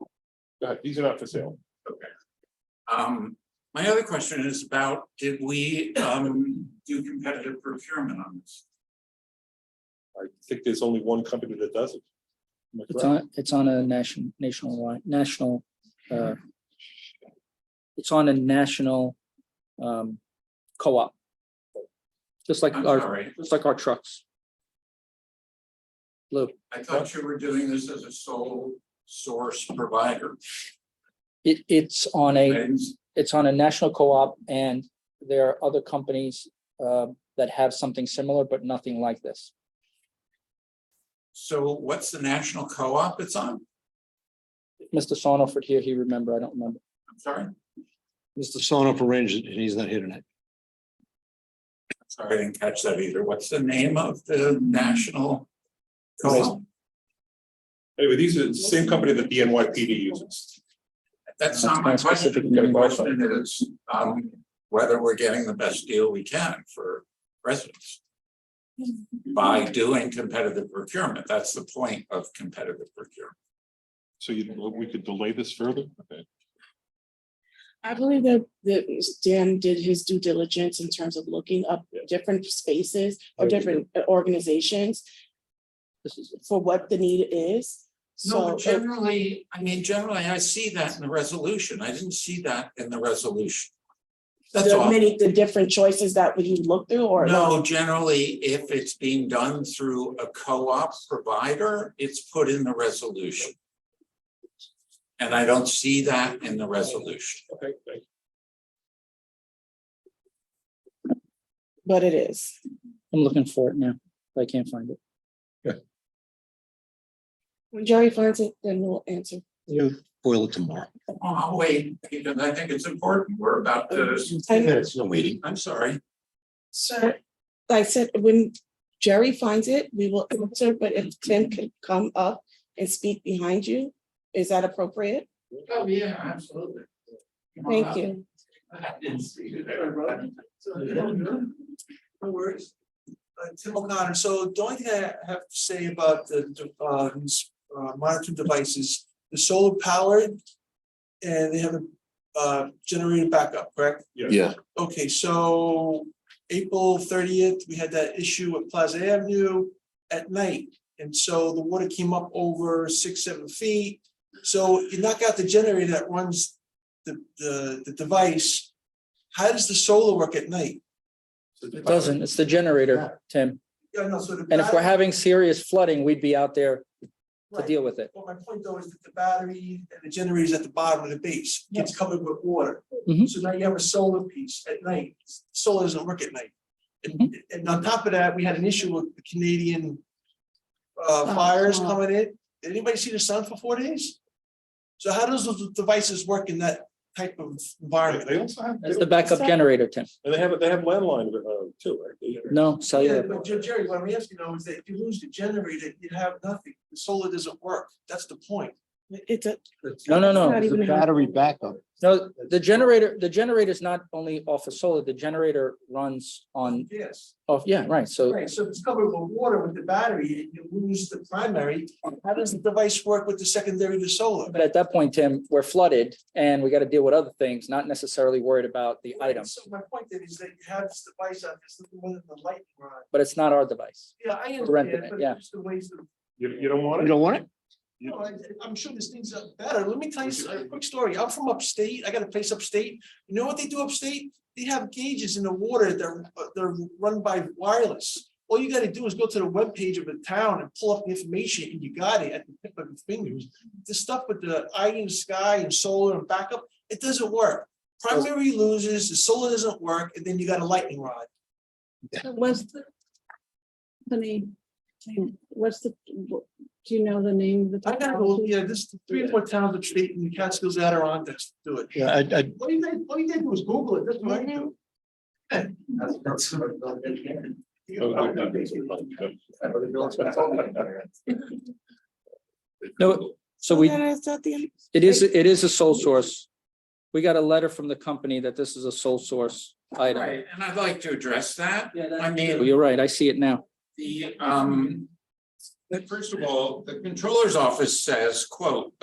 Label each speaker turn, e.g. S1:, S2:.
S1: Go ahead. Uh, These are not for sale.
S2: Um, my other question is about, did we, um, do competitive procurement on this?
S1: I think there's only one company that does it. Am I
S3: It's
S1: correct?
S3: on, it's on a national, national, line- national, uh, it's on a national, um, co-op. Just like
S2: I'm
S3: our,
S2: sorry,
S3: just like our trucks.
S2: I thought you were doing this as a sole source provider.
S3: It, it's on a,
S2: And
S3: it's on a national co-op and there are other companies, uh, that have something similar, but nothing like this.
S2: so what's the national co-op it's on?
S3: Mr. Sonoford here, he remember, I don't remember.
S2: I'm sorry, I'm
S4: Mr. Sonoff arranged it, and he's not here tonight.
S2: sorry, I didn't catch that either. What's the name of the national co-op?
S1: Anyway, these are the same company that the NYPD uses.
S2: That's not my
S3: That's my specific
S2: question. The
S3: name.
S2: question is, um, whether we're getting the best deal we can for residents. By doing competitive procurement, that's the point of competitive procurement.
S1: So you, we could delay this further? Okay.
S5: I believe that, that Dan did his due diligence in terms of looking up
S1: Yeah.
S5: different spaces
S1: Oh,
S5: or
S1: yeah.
S5: different uh, organizations
S3: This is,
S5: for what the need is.
S2: No,
S5: So, uh,
S2: but generally, I mean, generally, I see that in the resolution. I didn't see that in the resolution. That's
S5: the
S2: all.
S5: many, the different choices that you look through or.
S2: No, generally, if it's being done through a co-op provider, it's put in the resolution. And I don't see that in the resolution.
S1: Okay, thank
S5: But it is.
S3: I'm looking for it now, but I can't find it.
S5: When Jerry finds it, then we'll answer.
S4: You boil it tomorrow.
S2: Oh, I'll wait, because I think it's important. We're about to,
S5: And
S4: It's no waiting.
S2: I'm sorry.
S5: sir, I said, when Jerry finds it, we will answer, but if Tim could come up and speak behind you, is that appropriate?
S2: Oh, yeah, absolutely.
S5: Thank you.
S2: I didn't see you there, brother. No worries.
S6: uh, Tim O'Connor, so the only thing I have to say about the, the, uh, these, uh, monitoring devices, the solar powered. And they have a, uh, generator backup, correct?
S1: you.
S4: Yeah.
S6: Okay, so April thirtieth, we had that issue at Plaza Avenue at night. And so the water came up over six, seven feet. So you knock out the generator that runs the, the, the device. How does the solar work at night?
S3: It doesn't, it's the generator, Tim.
S6: Yeah, no, so the
S3: And if we're
S6: battery-
S3: having serious flooding, we'd be out there to
S6: Right.
S3: deal with it.
S6: Well, my point though is that the battery and the generator's at the bottom of the base, gets covered with water.
S3: Mhm.
S6: So now you have a solar piece at night, solar doesn't work at night. And,
S3: Mm-hmm.
S6: and on top of that, we had an issue with the Canadian uh,
S5: Oh,
S6: fires
S5: wow.
S6: coming in, Did anybody see the sun for four days? So how does those devices work in that type of
S1: They
S6: environment?
S1: they also have,
S3: That's the backup generator, Tim.
S1: and they have, they have landline, uh, too, right?
S3: No,
S6: Oh, Yeah,
S3: cellular.
S6: but Jer- Jerry, what I'm asking now is that if you lose the generator, you have nothing, the solar doesn't work, that's the point.
S5: It's a,
S3: No, no,
S5: Not
S3: no.
S4: It's a
S5: even a-
S4: battery backup.
S3: No, the generator, the generator is not only off of solar, the generator runs on,
S6: Yes.
S3: off, yeah, right. So
S6: Right, so if it's covered with water with the battery and you lose the primary, how does the device work with the secondary to solar?
S3: But at that point, Tim, we're flooded and we got to deal with other things, not necessarily worried about the item,
S6: So my point then is that you have this device on this little one in the lightning rod.
S3: but it's not our device.
S6: Yeah, I
S3: renting
S6: understand,
S3: it,
S6: but
S3: yeah.
S6: it's just a waste of,
S1: You, you don't want
S4: You
S1: it?
S4: don't want it?
S6: you know, I, I'm sure this thing's uh, better. Let me tell you a quick story. I'm from upstate. I got a place upstate. You know what they do upstate? They have gauges in the water. They're, uh, they're run by wireless. All you gotta do is go to the webpage of a town and pull up the information and you got it at the tip of your fingers. The stuff with the eye in the sky and solar and backup, it doesn't work. Primary loses, the solar doesn't work, and then you got a lightning rod.
S7: What's the company? What's the, do you know the name of the?
S6: I gotta go, yeah, this three or four towns of state and the Catskills Adirondacks do it.
S4: Yeah, I, I,
S6: What do you think, what do you think was Google it, that's what I do.
S1: Oh,
S3: No, so we,
S5: Then it's not the end.
S3: it is, it is a sole source. We got a letter from the company that this is a sole source item.
S2: Right, and I'd like to address that. I
S3: Well,
S2: mean,
S3: You're right. I see it now.
S2: The, um, first of all, the controller's office says, quote,